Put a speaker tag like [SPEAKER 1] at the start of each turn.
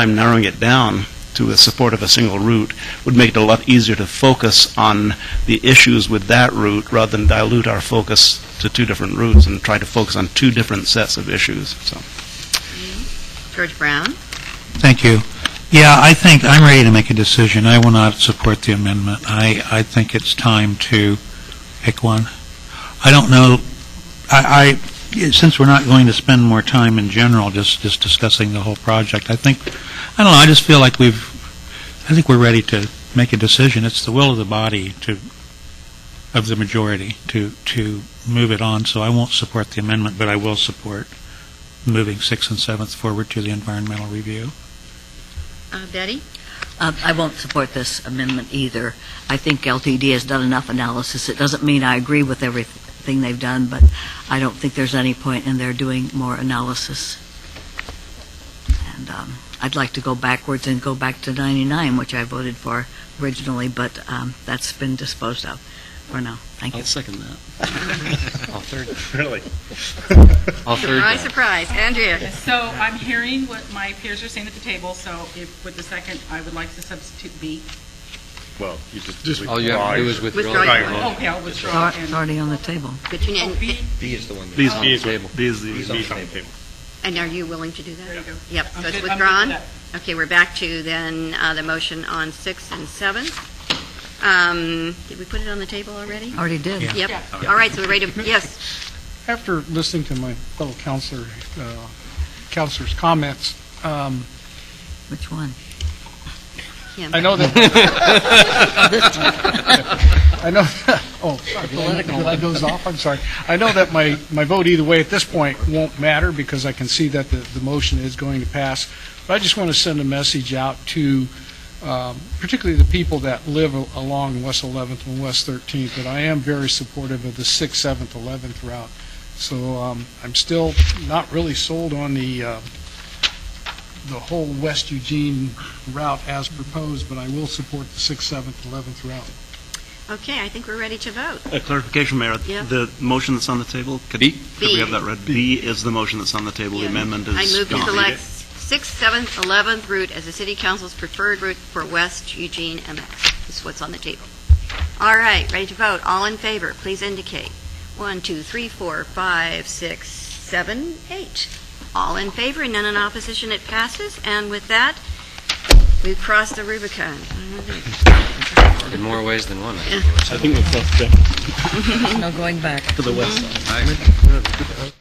[SPEAKER 1] time narrowing it down to the support of a single route would make it a lot easier to focus on the issues with that route rather than dilute our focus to two different routes and try to focus on two different sets of issues, so.
[SPEAKER 2] George Brown?
[SPEAKER 3] Thank you. Yeah, I think, I'm ready to make a decision. I will not support the amendment. I, I think it's time to pick one. I don't know, I, I, since we're not going to spend more time in general just, just discussing the whole project, I think, I don't know, I just feel like we've, I think we're ready to make a decision. It's the will of the body to, of the majority to, to move it on, so I won't support the amendment, but I will support moving Sixth and Seventh forward to the environmental review.
[SPEAKER 2] Uh, Betty?
[SPEAKER 4] Uh, I won't support this amendment either. I think LTD has done enough analysis. It doesn't mean I agree with everything they've done, but I don't think there's any point in their doing more analysis. And um, I'd like to go backwards and go back to 99, which I voted for originally, but um, that's been disposed of for now. Thank you.
[SPEAKER 5] second that. I'll third.
[SPEAKER 1] Really?
[SPEAKER 5] I'll third
[SPEAKER 2] Surprise,
[SPEAKER 5] that.
[SPEAKER 2] surprise. Andrea?
[SPEAKER 6] So I'm hearing what my peers are saying at the table, so if, with the second, I would like to substitute B.
[SPEAKER 7] Well, you just. delete
[SPEAKER 5] All you have to do
[SPEAKER 7] lies.
[SPEAKER 5] is withdraw.
[SPEAKER 2] Withdraw your
[SPEAKER 5] the
[SPEAKER 2] vote.
[SPEAKER 5] vote.
[SPEAKER 6] Okay, I'll withdraw
[SPEAKER 4] It's
[SPEAKER 6] and,
[SPEAKER 4] already on the table.
[SPEAKER 2] But you
[SPEAKER 6] oh,
[SPEAKER 2] need-
[SPEAKER 6] B,
[SPEAKER 8] B is the one that's
[SPEAKER 1] These-
[SPEAKER 8] on the
[SPEAKER 7] These are-
[SPEAKER 8] table.
[SPEAKER 1] These,
[SPEAKER 8] These
[SPEAKER 1] these,
[SPEAKER 8] on the
[SPEAKER 7] Leave it on the
[SPEAKER 8] table.
[SPEAKER 7] table.
[SPEAKER 2] And are you willing to do that?
[SPEAKER 6] there you go.
[SPEAKER 2] Yep,
[SPEAKER 6] I'm
[SPEAKER 2] so it's
[SPEAKER 6] good- I'm good with
[SPEAKER 2] withdrawn.
[SPEAKER 6] that.
[SPEAKER 2] Okay, we're back to then uh, the motion on six and seven. Um, Did we put it on the table already?
[SPEAKER 4] Already did.
[SPEAKER 3] Yeah.
[SPEAKER 2] Yep.
[SPEAKER 6] Yeah.
[SPEAKER 2] All right, so we're ready to, yes,
[SPEAKER 9] After listening to my fellow counselor, uh, counselor's comments, um,
[SPEAKER 4] Which one?
[SPEAKER 2] Kim.
[SPEAKER 9] I know that. I know. Oh, political. That goes off. I'm sorry. I know that my my vote either way at this point won't matter because I can see that the the motion is going to pass. But I just want to send a message out to um, particularly the people that live a- along West 11th and West 13th. That I am very supportive of the 6th, 7th, 11th route. So um, I'm still not really sold on the uh, the whole West Eugene route as proposed, but I will support the 6th, 7th, 11th route.
[SPEAKER 2] Okay, I think we're ready to vote.
[SPEAKER 1] A clarification, Mayor.
[SPEAKER 2] Yeah.
[SPEAKER 1] The motion that's on the table, could
[SPEAKER 5] B.
[SPEAKER 1] could we have that read? B is the motion that's on the table. The
[SPEAKER 2] Yeah.
[SPEAKER 1] amendment is
[SPEAKER 2] I move to
[SPEAKER 1] gone.
[SPEAKER 2] select sixth, seventh, 11th route as the city council's preferred route for West Eugene MX. This is what's on the table. All right, ready to vote. All in favor, please indicate. One, two, three, four, five, six, seven, eight. All in favor, none in opposition, it passes. And with that, we've crossed the Rubicon.
[SPEAKER 5] In more ways than one.
[SPEAKER 1] I think we're
[SPEAKER 4] No going back.
[SPEAKER 1] to the west.
[SPEAKER 5] I-